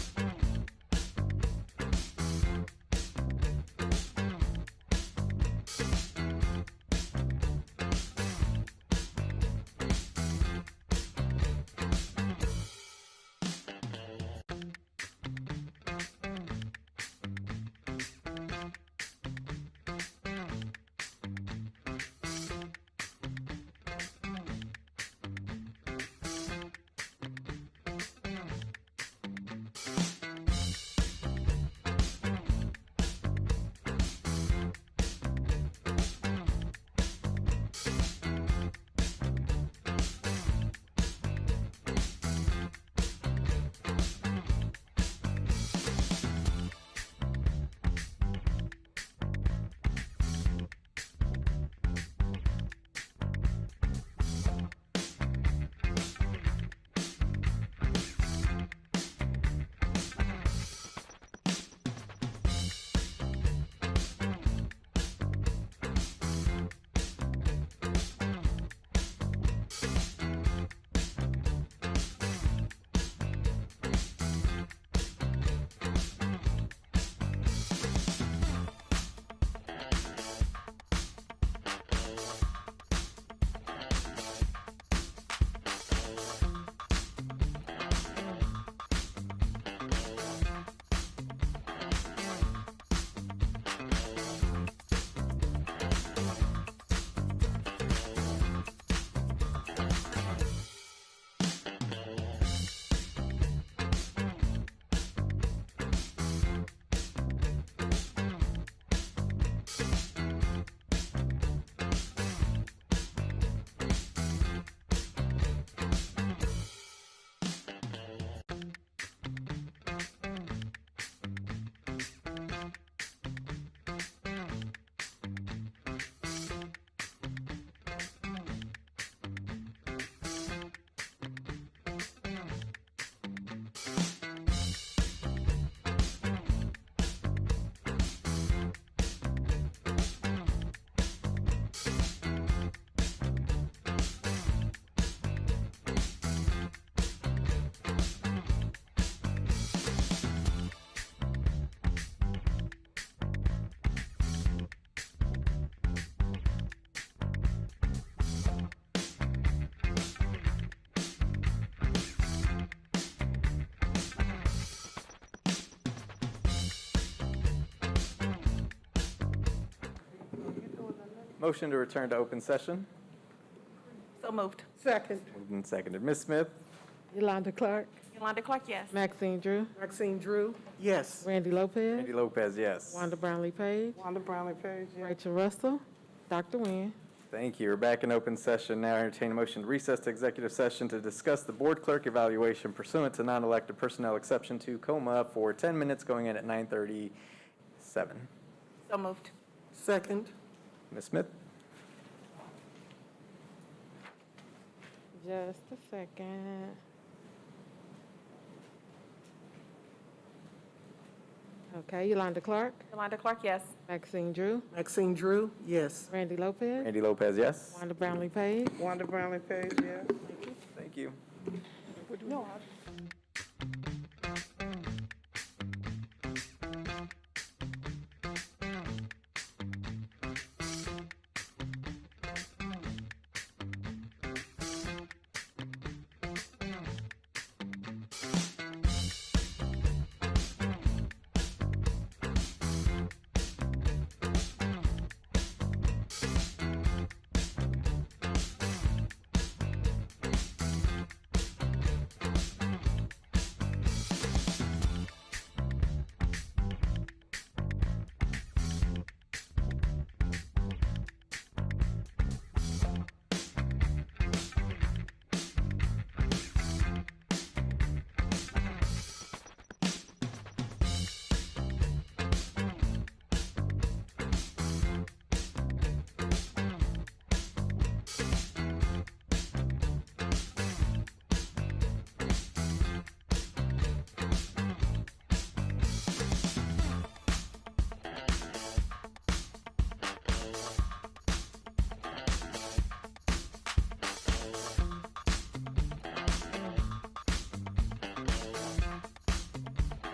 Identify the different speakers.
Speaker 1: Motion to return to open session.
Speaker 2: So moved.
Speaker 3: Second.
Speaker 1: Moved and seconded. Ms. Smith?
Speaker 4: Yolanda Clark,
Speaker 2: Yolanda Clark, yes.
Speaker 4: Maxine Drew,
Speaker 3: Maxine Drew.
Speaker 1: Yes.
Speaker 4: Randy Lopez,
Speaker 1: Randy Lopez, yes.
Speaker 4: Wanda Brownlee Page,
Speaker 3: Wanda Brownlee Page, yes.
Speaker 4: Rachel Russell, Dr. Nguyen.
Speaker 1: Thank you. We're back in open session. Now entertain a motion to recess to executive session to discuss the board clerk evaluation pursuant to non-elected personnel exception to coma for 10 minutes going in at 9:37.
Speaker 2: So moved.
Speaker 3: Second.
Speaker 1: Ms. Smith?
Speaker 4: Just a second. Okay, Yolanda Clark,
Speaker 2: Yolanda Clark, yes.
Speaker 4: Maxine Drew,
Speaker 3: Maxine Drew, yes.
Speaker 4: Randy Lopez,
Speaker 1: Randy Lopez, yes?
Speaker 4: Wanda Brownlee Page.
Speaker 3: Wanda Brownlee Page, yes.
Speaker 1: Thank you.
Speaker 3: No, I-